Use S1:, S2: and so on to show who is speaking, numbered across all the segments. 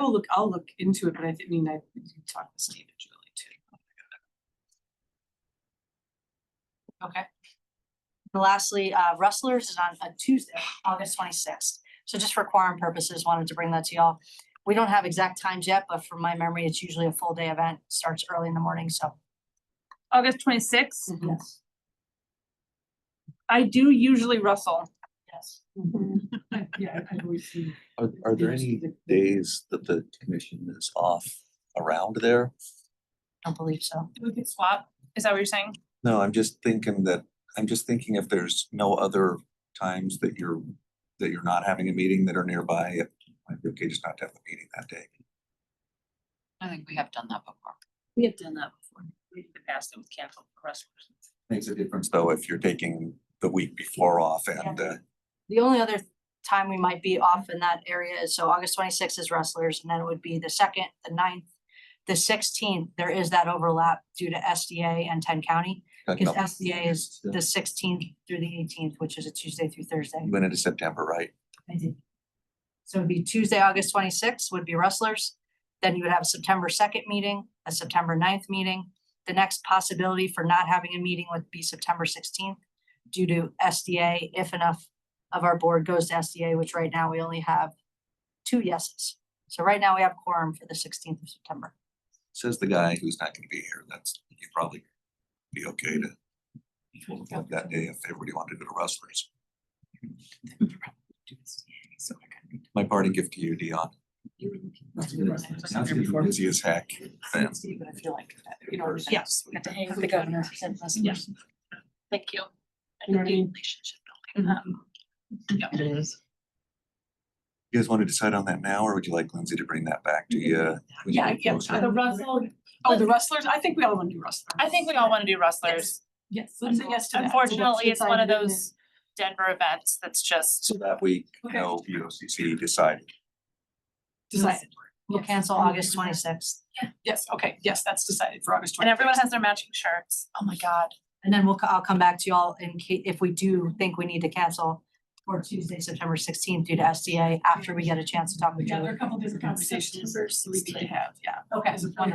S1: will look, I'll look into it, but I thi- I mean, I we can talk to Steve and Julie too. Okay,
S2: And Lastly, uh, Rustlers is on a Tuesday, August twenty-sixth. So just for quorum purposes, wanted to bring that to y'all. We don't have exact times yet, but from my memory, it's usually a full day event, starts early in the morning, so.
S3: August twenty-sixth,
S1: Mhm.
S2: Yes.
S3: I do usually rustle.
S2: Yes.
S1: yeah, I- I've always seen.
S4: Are, are there
S1: Yes,
S4: any
S1: the-
S4: days that the commission is off around there?
S2: Don't believe so.
S3: We could swap. Is that what you're saying?
S4: No, I'm just thinking that, I'm just thinking if there's no other times that you're, that you're not having a meeting that are nearby, it might be okay just not to have a meeting that day.
S5: I think we have done that before.
S6: We have done that before. We've passed it with capital restrooms.
S4: Makes a difference. Though if you're taking the week before off and, uh,
S2: The only other time we might be off in that area is, so August twenty-sixth is Rustlers, and then it would be the second, the 9th, the sixteenth. There is that overlap due to SDA and ten county,
S4: got
S2: because
S4: nothing.
S2: SDA is
S4: Yeah.
S2: the sixteenth through the eighteenth, which is a Tuesday through Thursday.
S4: You went into September, right?
S2: I did. So it'd be Tuesday, August twenty-sixth would be Rustlers. Then you would have a September second meeting, a September 9th meeting. The next possibility for not having a meeting would be September sixteenth due to SDA, if enough of our board goes to SDA, which right now we only have two yeses. So right now we have quorum for the sixteenth of September.
S4: Says the guy who's not gonna be here. That's, you'd probably be okay to have that day if everybody wanted to go to wrestlers. My party gift to you, Dion.
S6: You were looking.
S4: Sounds like you're Busy as heck. Sam.
S1: But I feel like, that, you know.
S4: Yes.
S1: Yes.
S6: Got to hang with the governor. said last
S1: Yeah.
S6: person. Thank you.
S1: You know what I mean? Mm-hmm.
S6: Relationship building. Um,
S5: It is.
S4: You guys want to decide on that now, or would you like Lindsay to bring that back to you? when you
S1: Yeah,
S4: get
S1: yeah,
S4: closer?
S1: the rustle, oh, the rustlers, I think we all want to do rustlers.
S3: I think we all wanna do rustlers.
S1: Yes, let's say yes to that. So that's
S3: Unfortunately, it's one of
S1: decided and
S3: those Denver events that's just,
S4: So that week,
S1: Okay.
S4: no, VOCC decided.
S1: Decided.
S2: We'll
S1: Yes.
S2: cancel August twenty-sixth.
S1: Yes, okay, yes, that's decided for August
S3: and
S1: twenty.
S3: everyone has their matching shirts. Oh my god.
S2: And then we'll, co- I'll come back to y'all in case, if we do think we need to cancel for Tuesday, September sixteenth due to SDA, after we get a chance to talk with
S1: Yeah,
S2: Julie.
S1: there are a couple different conversations we could have, yeah.
S2: Okay,
S1: As a plan.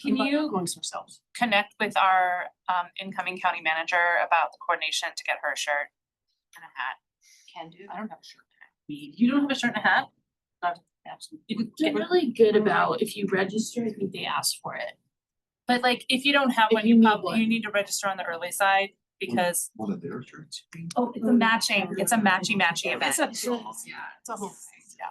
S3: Can
S1: But
S3: you-
S1: Amongst ourselves.
S3: Connect with our um incoming county manager about the coordination to get her a shirt and a hat.
S2: Can do.
S3: I don't have a shirt. You don't have a shirt and a hat?
S1: Absolutely.
S6: They're really good about if you register, I think they ask for it.
S3: But like, if you don't have
S6: If
S3: one,
S6: you
S3: you
S6: need
S3: probably,
S6: one.
S3: you need to register on the early side because
S4: One of their shirts.
S6: Oh,
S3: it's a matching, it's a matchy matchy event.
S1: It's a, yeah, it's a whole thing, yeah.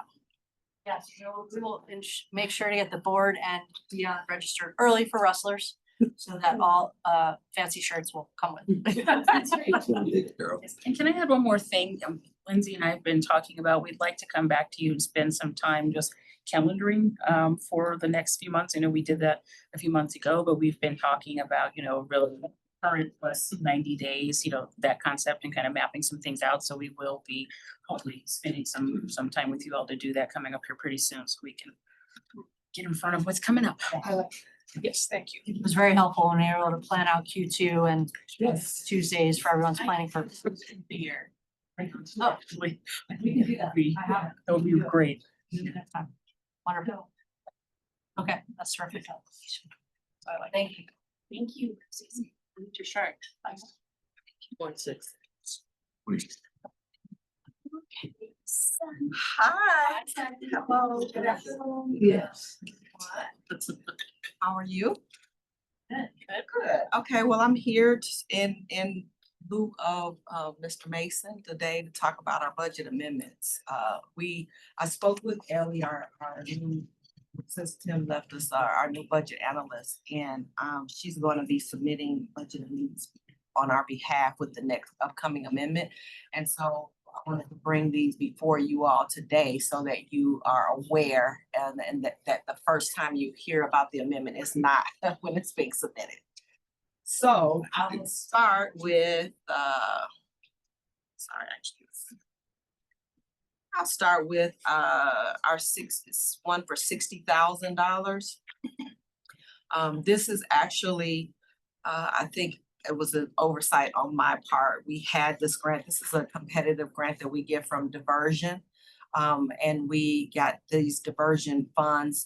S2: Yes, we'll, we will ins- make sure to get the board and Dion registered early for rustlers, so that all uh fancy shirts will come with.
S6: That's right.
S4: Yes.
S6: And can I add one more thing? Um, Lindsay and I have been talking about, we'd like to come back to you and spend some time just calendaring um for the next few months. I know we did that a few months ago, but we've been talking about, you know, really current plus ninety days, you know, that concept and kind of mapping some things out. So we will be hopefully spending some some time with you all to do that coming up here pretty soon so we can get in front of what's coming up.
S1: Yes, thank you.
S2: It was very helpful when we were able to plan out Q two and
S1: Yes.
S2: Tuesdays for everyone's planning for.
S6: Beer.
S2: Oh.
S6: Actually, I
S2: We can do that.
S6: Be-
S2: I have it.
S6: That would be great.
S2: Wonderful. Okay, that's terrific.
S1: I like.
S2: Thank you.
S6: Thank you, Susan. Your shark. One six.
S7: Hi. Hello, good afternoon. Yes. How are you? Good. Okay, well, I'm here t- in, in lieu of, uh, Mr. Mason today to talk about our budget amendments. Uh, we, I spoke with Ellie, our, our new, since Tim left us, our, our new budget analyst, and, um, she's going to be submitting budget amendments on our behalf with the next upcoming amendment. And so I wanted to bring these before you all today so that you are aware and, and that, that the first time you hear about the amendment is not when it's being submitted. So I will start with, uh, sorry, I just. I'll start with, uh, our six, this one for sixty thousand dollars. Um, this is actually, uh, I think it was an oversight on my part. We had this grant, this is a competitive grant that we get from diversion. Um, and we got these diversion funds